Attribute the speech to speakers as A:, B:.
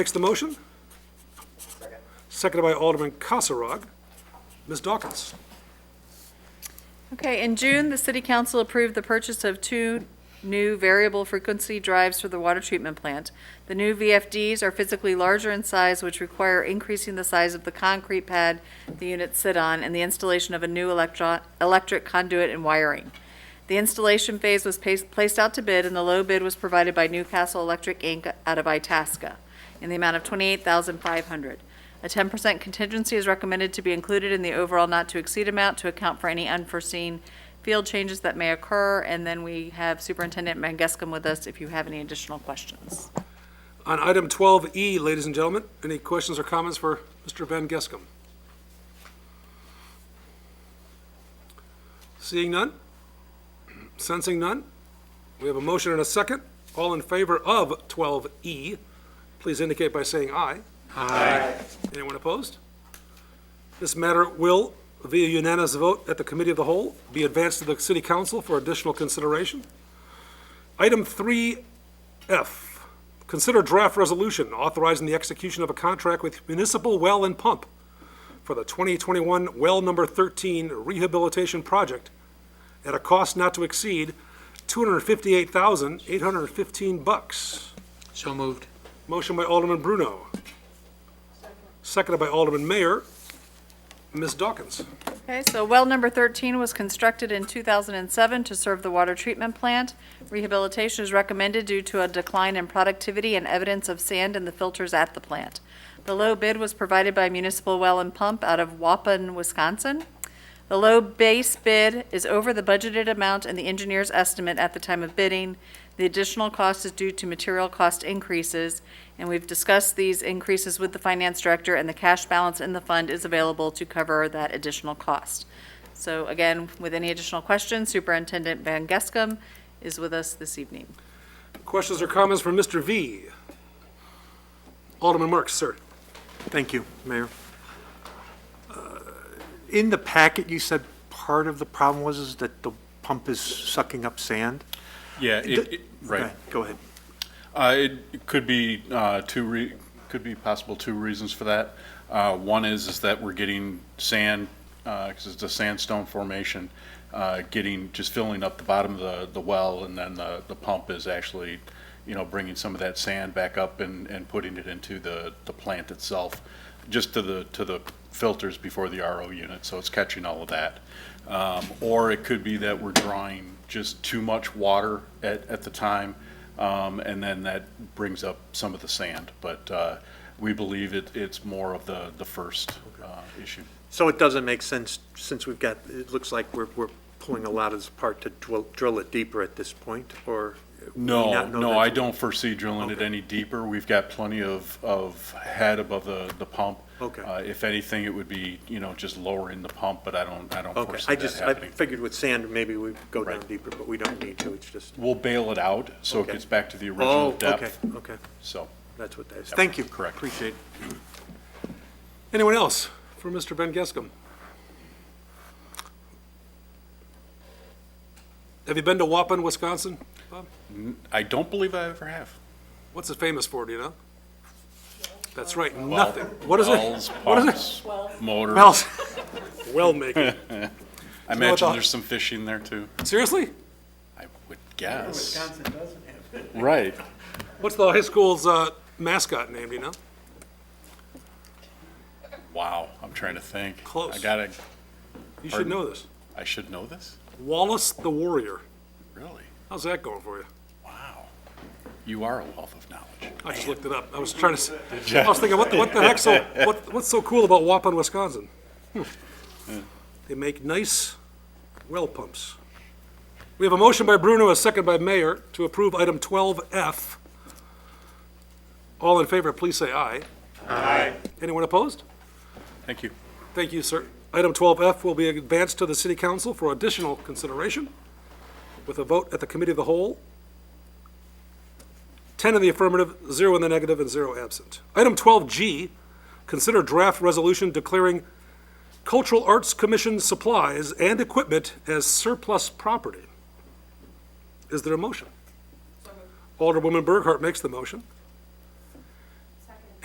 A: Makes the motion? Seconded by Alderman Kasserag. Ms. Dawkins?
B: Okay, in June, the city council approved the purchase of two new variable frequency drives for the water treatment plant. The new VFDs are physically larger in size, which require increasing the size of the concrete pad the units sit on and the installation of a new electro, electric conduit and wiring. The installation phase was pa- placed out to bid, and the low bid was provided by Newcastle Electric, Inc. out of Itasca in the amount of $28,500. A 10% contingency is recommended to be included in the overall not-to-exceed amount to account for any unforeseen field changes that may occur. And then we have Superintendent Mangeskam with us if you have any additional questions.
A: On item 12E, ladies and gentlemen, any questions or comments for Mr. Van Geskum? Seeing none? Sensing none? We have a motion and a second. All in favor of 12E, please indicate by saying aye. Aye. Anyone opposed? This matter will, via unanimous vote at the Committee of the Whole, be advanced to the City Council for additional consideration. Item 3F, Consider draft resolution authorizing the execution of a contract with Municipal Well and Pump for the 2021 Well Number 13 Rehabilitation Project at a cost not to exceed 258815 bucks.
C: So moved.
A: Motion by Alderman Bruno. Seconded by Alderman Mayor. Ms. Dawkins.
B: Okay, so well number 13 was constructed in 2007 to serve the water treatment plant. Rehabilitation is recommended due to a decline in productivity and evidence of sand in the filters at the plant. The low bid was provided by Municipal Well and Pump out of Waupun, Wisconsin. The low base bid is over the budgeted amount and the engineer's estimate at the time of bidding. The additional cost is due to material cost increases, and we've discussed these increases with the finance director, and the cash balance in the fund is available to cover that additional cost. So again, with any additional questions, Superintendent Van Gescam is with us this evening.
A: Questions or comments from Mr. V? Alderman Marks, sir.
D: Thank you, Mayor. Uh, In the packet, you said part of the problem was is that the pump is sucking up sand?
E: Yeah, it, it, right.
D: Okay, Go ahead.
E: Uh, it it could be, uh, two re, could be possible two reasons for that. Uh, one is, is that we're getting sand, uh 'cause cause it's a sandstone formation, uh, getting, just filling up the bottom of the, the well and then the, the pump is actually, you know, bringing some of that sand back up and, and putting it into the, the plant itself, just to the, to the filters before the RO unit, so it's catching all of that. Um, or it could be that we're drawing just too much water at, at the time, um, and then that brings up some of the sand. But, uh, we believe it, it's more of the, the first, uh, issue.
D: So it doesn't make sense, since we've got, it looks like we're, we're pulling a lot of this apart to drill, drill it deeper at this point, or? we
E: No,
D: not know
E: no,
D: that's-
E: I don't foresee drilling it
D: Okay.
E: any deeper. We've got plenty of, of head above the, the pump.
D: Okay.
E: Uh, if anything, it would be, you know, just lowering the pump, but I don't, I don't
D: Okay,
E: foresee
D: I
E: that
D: just, I
E: happening.
D: figured with sand, maybe we go down
E: Right.
D: deeper, but we don't need to, it's just.
E: We'll bail it out, so it
D: Okay.
E: gets back to the original
D: Oh, okay,
E: depth,
D: okay,
E: so.
D: that's what that is.
E: Yep,
D: Thank you.
E: correct.
D: Appreciate it.
A: Anyone else for Mr. Ben Gescam? Have you been to Waupun, Wisconsin? Bob?
E: I don't believe I ever have.
A: What's it famous for, do you know? That's right, nothing. What is it?
E: Wells,
A: What is it?
E: pumps, motor.
A: Wells. Well making.
E: I
A: what
E: imagine
A: the-
E: there's some fishing there too,
A: Seriously?
E: I would guess. Right.
A: What's the high school's uh, mascot name, do you know?
E: Wow, I'm trying to think.
A: Close.
E: I gotta,
A: You should
E: Pardon?
A: know this.
E: I should know this?
A: Wallace the Warrior.
E: Really?
A: How's that going for you?
E: Wow. You are a wealth of knowledge.
A: I just looked it up. I was trying to, s- I was thinking, what the, what the heck's so, what, what's so cool about Waupun, Wisconsin? Hmm. They make nice well pumps. We have a motion by Bruno, a second by Mayor, to approve item 12F. All in favor, please say aye. Aye. Anyone opposed?
E: Thank you.
A: Thank you, sir. Item 12F will be advanced to the City Council for additional consideration with a vote at the Committee of the Whole. 10 in the affirmative, 0 in the negative, and 0 absent. Item 12G, consider draft resolution declaring Cultural Arts Commission supplies and equipment as surplus property. Is there a motion? Alderwoman Burghart makes the motion.